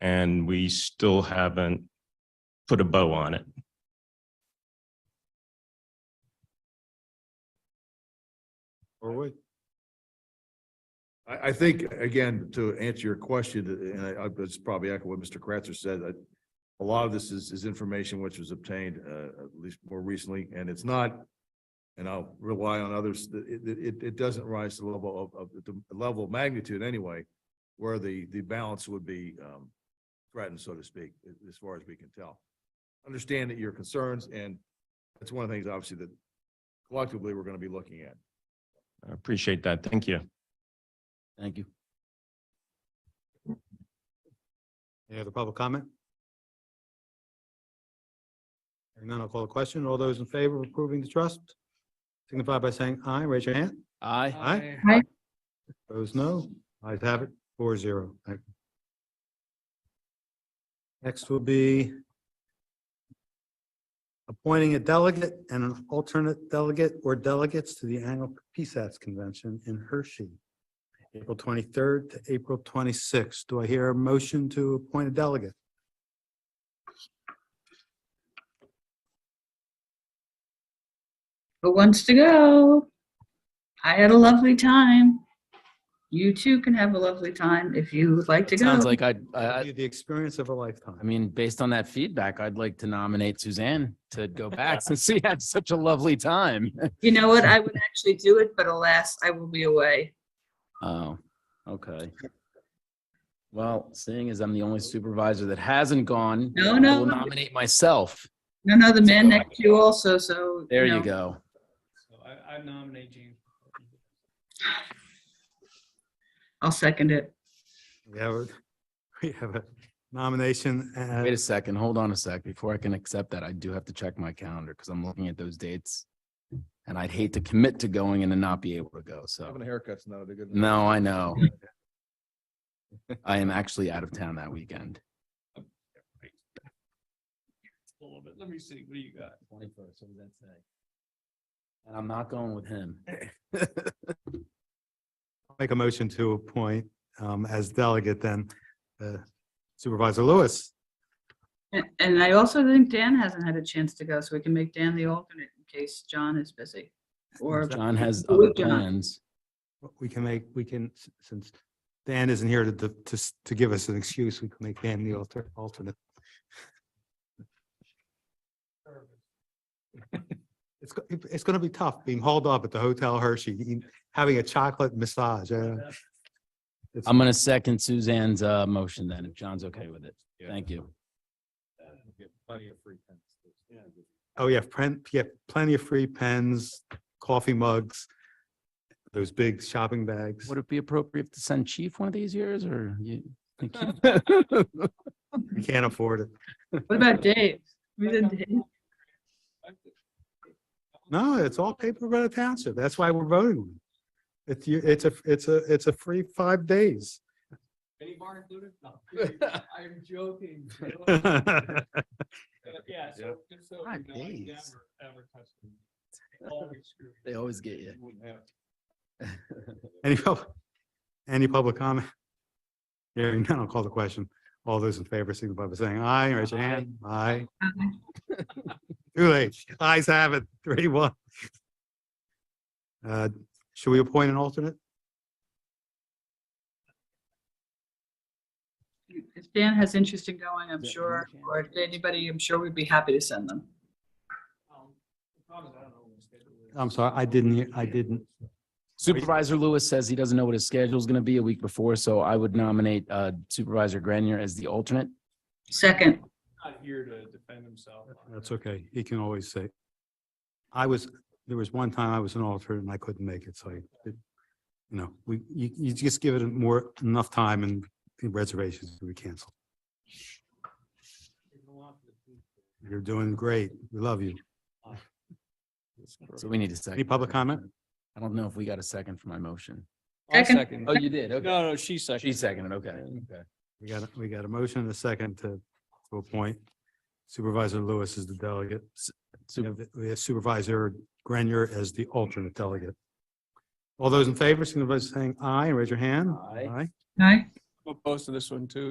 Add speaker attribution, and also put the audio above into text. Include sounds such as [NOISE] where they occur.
Speaker 1: and we still haven't put a bow on it.
Speaker 2: Or we? I, I think, again, to answer your question, and I, I- it's probably echo what Mr. Kratzer said, that a lot of this is, is information which was obtained, uh, at least more recently, and it's not, and I'll rely on others, that it, it, it- it doesn't rise to the level of, of, the level of magnitude anyway, where the, the balance would be, um, threatened, so to speak, a- as far as we can tell. Understand that your concerns, and that's one of the things, obviously, that collectively we're gonna be looking at.
Speaker 1: I appreciate that. Thank you.
Speaker 3: Thank you.
Speaker 4: Any other public comment? Hearing none, I'll call the question. All those in favor of approving the trust signify by saying aye, raise your hand.
Speaker 3: Aye.
Speaker 5: Uh,
Speaker 4: Aye.
Speaker 5: Aye.
Speaker 4: Those no, ayes have it, four zero. Thank you. Next will be appointing a delegate and an alternate delegate or delegates to the annual PSATS convention in Hershey, April twenty-third to April twenty-sixth. Do I hear a motion to appoint a delegate?
Speaker 5: Who wants to go? I had a lovely time. You too can have a lovely time if you would like to go.
Speaker 3: Sounds like I'd- I, I,
Speaker 4: That'd be The experience of a lifetime.
Speaker 3: I mean, based on that feedback, I'd like to nominate Suzanne to go
Speaker 5: [LAUGHS]
Speaker 3: back since she had such a lovely time. [LAUGHS]
Speaker 5: You know what? I would actually do it, but alas, I will be away.
Speaker 3: Oh, okay. Well, seeing as I'm the only supervisor that hasn't gone.
Speaker 5: No,
Speaker 3: I
Speaker 5: no,
Speaker 3: will
Speaker 5: no.
Speaker 3: Nominate myself.
Speaker 5: No, no, the man next to you also, so.
Speaker 3: There you
Speaker 5: know.
Speaker 3: go.
Speaker 6: So I, I nominate you.
Speaker 5: I'll second it.
Speaker 4: We have, a [LAUGHS] we have a nomination. and- [LAUGHS]
Speaker 3: Wait a second. Hold on a sec. Before I can accept that, I do have to check my calendar because I'm looking at those dates. And I'd hate to commit to going and then not be able to go. So,
Speaker 2: Having a haircut's not a good.
Speaker 3: no, I know. I am actually out of town that weekend.
Speaker 6: A little bit. Let me see. What do you got?
Speaker 3: Twenty-first, what does that say? And I'm not going with him.
Speaker 4: Make a motion to appoint um, as delegate then uh, Supervisor Lewis.
Speaker 5: And- And I also think Dan hasn't had a chance to go, so we can make Dan the alternate in case John is busy. Or,
Speaker 3: John has
Speaker 5: Who
Speaker 3: other
Speaker 5: would John?
Speaker 3: plans.
Speaker 4: We can make, we can, s- since Dan isn't here to, to, s- to give us an excuse, we can make Dan the alter- alternate. It's, go- it's going to be tough being hauled up at the Hotel Hershey, eating- having a chocolate massage. uh, it's-
Speaker 3: I'm gonna second Suzanne's uh motion then, if John's okay with it. Thank you.
Speaker 4: Oh, yeah, plen- yeah, plenty of free pens, coffee mugs, those big shopping bags.
Speaker 3: Would it be appropriate to send Chief one of these years or you? think he-
Speaker 4: We can't afford it.
Speaker 5: what about Dave? We didn't- Dave?
Speaker 4: No, it's all paper by the township. That's why we're voting. on it. It's, you- it's a, it's a, it's a free five days.
Speaker 6: Any bar included? No. I'm joking. Yeah, so, just so.
Speaker 3: Five
Speaker 6: you know, I
Speaker 3: days.
Speaker 6: never, ever touch them. Always
Speaker 3: [LAUGHS]
Speaker 6: screw.
Speaker 3: They always get you.
Speaker 6: Wouldn't have.
Speaker 4: Any, pub- any public comment? Hearing none, I'll call the question. All those in favor signify by saying aye, raise your hand. Aye. Too late. Ayes have it, three, one. Uh, should we appoint an alternate?
Speaker 5: If Dan has interest in going, I'm sure, or if anybody, I'm sure we'd be happy to send them.
Speaker 6: Um, the problem is I don't know when the schedule is.
Speaker 4: I'm sorry, I didn't hear- I didn't.
Speaker 3: Supervisor Lewis says he doesn't know what his schedule is gonna be a week before, so I would nominate uh Supervisor Grenier as the alternate.
Speaker 5: Second,
Speaker 6: Not here to defend himself. on
Speaker 4: That's okay. He can always say. I was, there was one time I was an alternate and I couldn't make it, so I, it- you know, we, you, you just give it more, enough time and reservations will be canceled.
Speaker 6: it. You don't want the people.
Speaker 4: You're doing great. We love you.
Speaker 3: So we need a second.
Speaker 4: Any public comment?
Speaker 3: I don't know if we got a second for my motion.
Speaker 6: I'll
Speaker 5: Second.
Speaker 3: Oh, you did? Okay.
Speaker 6: No, no, she seconded.
Speaker 3: She seconded, okay.
Speaker 4: We got, a- we got a motion and a second to, to appoint Supervisor Lewis as the delegate. S- we have- We have Supervisor Grenier as the alternate delegate. All those in favor, signify by saying aye, and raise your hand.
Speaker 3: Aye.
Speaker 4: Aye.
Speaker 5: aye?
Speaker 6: I'm opposed to this one too.